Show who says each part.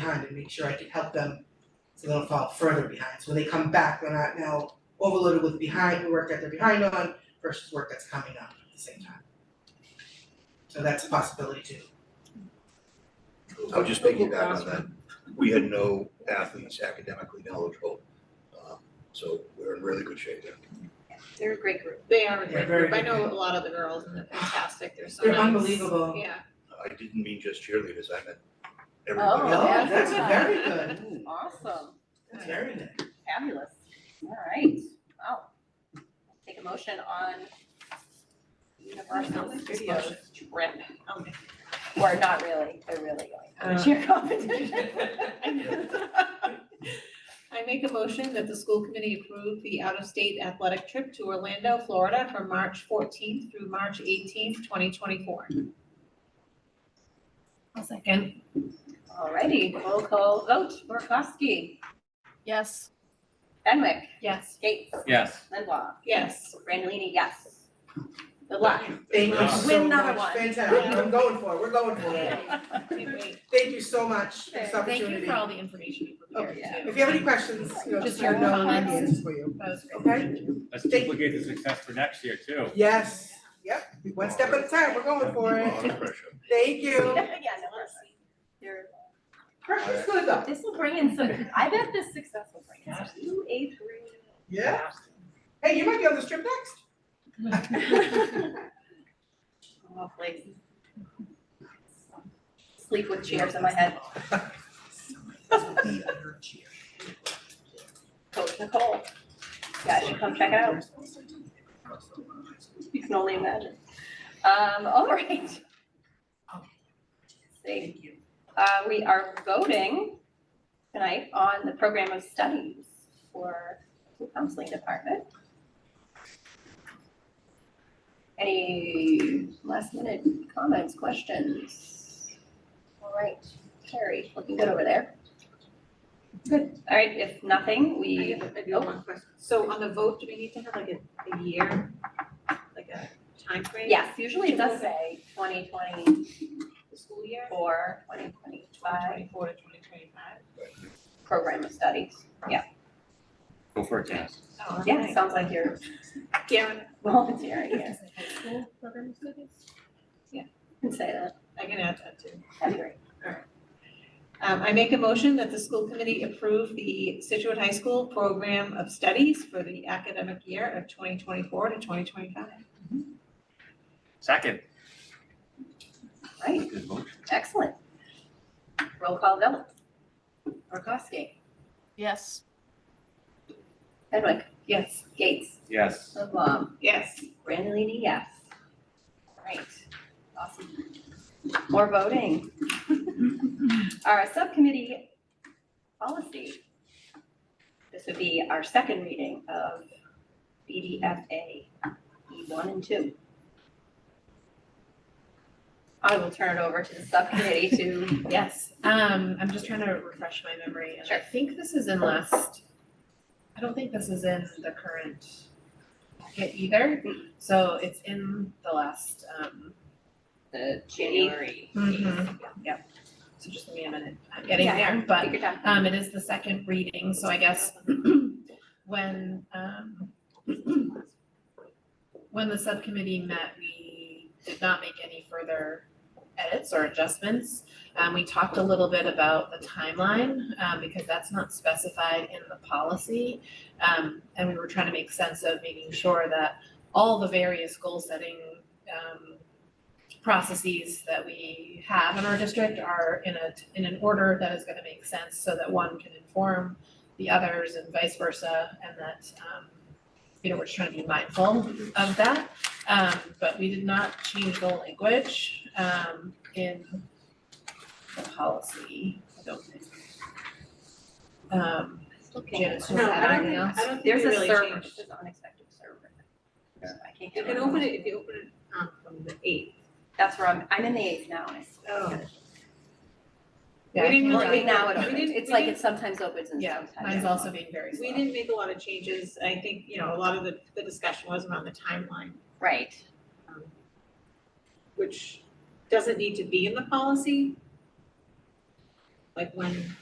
Speaker 1: behind and make sure I can help them so they don't fall further behind. So when they come back, they're not now overloaded with behind, work that they're behind on versus work that's coming up at the same time. So that's a possibility too.
Speaker 2: I would just piggyback on that. We had no athletes academically knowledgeable. um, So we're in really good shape there.
Speaker 3: They're a great group.
Speaker 4: They are a
Speaker 1: Yeah,
Speaker 4: great
Speaker 1: very
Speaker 4: group. I
Speaker 1: good.
Speaker 4: know a lot of the girls and they're fantastic. They're so
Speaker 1: They're
Speaker 4: nice.
Speaker 1: unbelievable.
Speaker 4: Yeah.
Speaker 2: I didn't mean just cheerleaders, I meant
Speaker 5: Oh,
Speaker 2: everybody.
Speaker 1: No,
Speaker 5: yeah.
Speaker 1: that's very good,
Speaker 5: Awesome,
Speaker 1: that's very good.
Speaker 5: fabulous. All right, wow. Take a motion on Universal Studios trip. Or not really, they're really going to
Speaker 4: Uh.
Speaker 5: cheer competition.
Speaker 4: I make a motion that the school committee approve the out-of-state athletic trip to Orlando, Florida from March fourteenth through March eighteenth, twenty twenty-four.
Speaker 3: I'll second.
Speaker 5: All righty, roll call vote, Murkowski,
Speaker 3: Yes.
Speaker 5: Fenwick,
Speaker 4: Yes.
Speaker 5: Gates,
Speaker 6: Yes.
Speaker 5: Lindblom,
Speaker 4: yes.
Speaker 5: Randallini, yes. Good luck.
Speaker 1: Thank you
Speaker 6: Yeah.
Speaker 1: so
Speaker 3: Win number
Speaker 1: much,
Speaker 3: one.
Speaker 1: fantastic, I'm going for it, we're going for it.
Speaker 4: Can't wait.
Speaker 1: Thank you so much for this
Speaker 5: Thank
Speaker 1: opportunity. Oh,
Speaker 3: Thank you for all the information you prepared
Speaker 5: Okay.
Speaker 3: too.
Speaker 1: If you have any questions, you know,
Speaker 3: Just
Speaker 1: just
Speaker 3: your
Speaker 1: let me know, I have
Speaker 3: comments.
Speaker 1: answers for you,
Speaker 3: That was great.
Speaker 1: okay?
Speaker 6: Let's
Speaker 1: Thank-
Speaker 6: duplicate the success for next year too.
Speaker 1: Yes, yep, one step at a time, we're going for
Speaker 2: A
Speaker 1: it,
Speaker 2: lot of pressure.
Speaker 1: thank you.
Speaker 5: Yeah, no, we're- you're
Speaker 1: Pressure's good though.
Speaker 5: This will bring in some, I bet this success will bring in some new eighth grade.
Speaker 1: Yeah. Hey, you might be on this trip next.
Speaker 5: Lovely. Sleep with chairs in my head. Coach Nicole, yeah, you should come check it out. You can only imagine. Um, all right. Thank you. Uh, we are voting tonight on the program of studies for the counseling department. Any last minute comments, questions? All right, Carrie, looking good over there. Good. All right, if nothing,
Speaker 4: I
Speaker 5: we,
Speaker 4: have- I do have one question. Oh, So on the vote, do we need to have like a, a year, like a time frame?
Speaker 5: yes, usually it does say twenty twenty-four,
Speaker 4: The school year?
Speaker 5: twenty twenty-five
Speaker 4: Twenty-four to twenty twenty-five?
Speaker 5: program of studies.
Speaker 6: Go for it, Janice.
Speaker 4: Oh,
Speaker 5: Yeah, it sounds like you're
Speaker 4: Karen,
Speaker 5: volunteering here.
Speaker 3: School program students?
Speaker 5: Can say that.
Speaker 4: I can add that too.
Speaker 5: That'd be great.
Speaker 4: Um, I make a motion that the school committee approve the Situate High School Program of Studies for the academic year of twenty twenty-four to twenty twenty-five.
Speaker 6: Second.
Speaker 5: Right,
Speaker 6: Good motion.
Speaker 5: excellent. Roll call vote. Rokoski.
Speaker 3: Yes.
Speaker 5: Hedwig.
Speaker 4: Yes.
Speaker 5: Gates.
Speaker 6: Yes.
Speaker 5: Lindblom.
Speaker 4: Yes.
Speaker 5: Brandolini, yes. Right, awesome. More voting. Our subcommittee policy. This would be our second reading of BDFA, E one and two. I will turn it over to the subcommittee to,
Speaker 3: Yes. Um, I'm just trying to refresh my memory and I
Speaker 5: Sure.
Speaker 3: think this is in last, I don't think this is in the current packet either.
Speaker 5: Mm.
Speaker 3: So it's in the last, um,
Speaker 5: the January.
Speaker 3: Mhm.
Speaker 5: Yeah,
Speaker 3: so just give me a minute. I'm getting
Speaker 5: Yeah, yeah.
Speaker 3: there, but
Speaker 5: Take your time.
Speaker 3: Um, it is the second reading, so I guess when, um, when the subcommittee met, we did not make any further edits or adjustments. Um, we talked a little bit about the timeline, um, because that's not specified in the policy. Um, and we were trying to make sense of making sure that all the various goal-setting, um, processes that we have in our district are in a, in an order that is gonna make sense so that one can inform the others and vice versa, and that, um, you know, we're just trying to be mindful of that. Um, but we did not change the language, um, in the policy, I don't think. Um, Janice, do you
Speaker 4: No,
Speaker 3: wanna add
Speaker 4: I don't
Speaker 3: anything
Speaker 4: think,
Speaker 3: else?
Speaker 4: I don't think
Speaker 5: There's
Speaker 4: we
Speaker 5: a
Speaker 4: really
Speaker 5: server,
Speaker 4: changed.
Speaker 5: there's an unexpected server.
Speaker 6: Yeah.
Speaker 5: So I can't
Speaker 4: You
Speaker 5: get
Speaker 4: can
Speaker 5: it.
Speaker 4: open it, if you open it, um, from the eighth.
Speaker 5: That's where I'm, I'm in the eighth now, and I still
Speaker 4: Oh.
Speaker 5: can't get it.
Speaker 4: We
Speaker 3: yeah, I
Speaker 4: didn't
Speaker 3: think
Speaker 5: Well,
Speaker 4: really-
Speaker 3: that-
Speaker 5: now it
Speaker 4: We
Speaker 5: opens,
Speaker 4: didn't-
Speaker 5: it's
Speaker 4: we
Speaker 5: like
Speaker 4: didn't-
Speaker 5: it sometimes opens and
Speaker 3: Yeah,
Speaker 5: sometimes.
Speaker 3: mine's also being very slow.
Speaker 4: We didn't make a lot of changes. I think, you know, a lot of the, the discussion was around the timeline,
Speaker 5: Right,
Speaker 4: um, which doesn't need to be in the policy. Like when